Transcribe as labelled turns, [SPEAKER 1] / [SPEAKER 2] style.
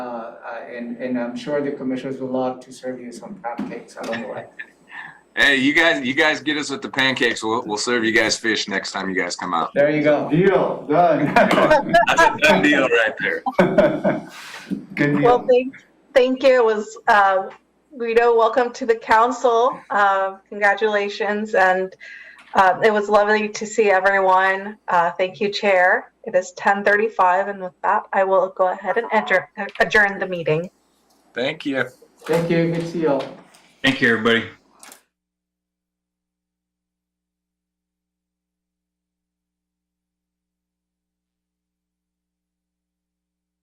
[SPEAKER 1] Uh, uh, and, and I'm sure the commissioners would love to serve you some cupcakes along the way.
[SPEAKER 2] Hey, you guys, you guys get us with the pancakes. We'll, we'll serve you guys fish next time you guys come out.
[SPEAKER 1] There you go.
[SPEAKER 3] Deal, done.
[SPEAKER 2] That's a done deal right there.
[SPEAKER 3] Good
[SPEAKER 4] Well,
[SPEAKER 3] deal.
[SPEAKER 4] thank, thank you. It was, uh, Guido, welcome to the council. Uh, Congratulations. And uh, it was lovely to see everyone. Uh, Thank you, Chair. It is 10:35, and with that, I will go ahead and adjourn- adjourn the meeting.
[SPEAKER 2] Thank you.
[SPEAKER 1] Thank you. Good to see you all.
[SPEAKER 5] Thank you, everybody.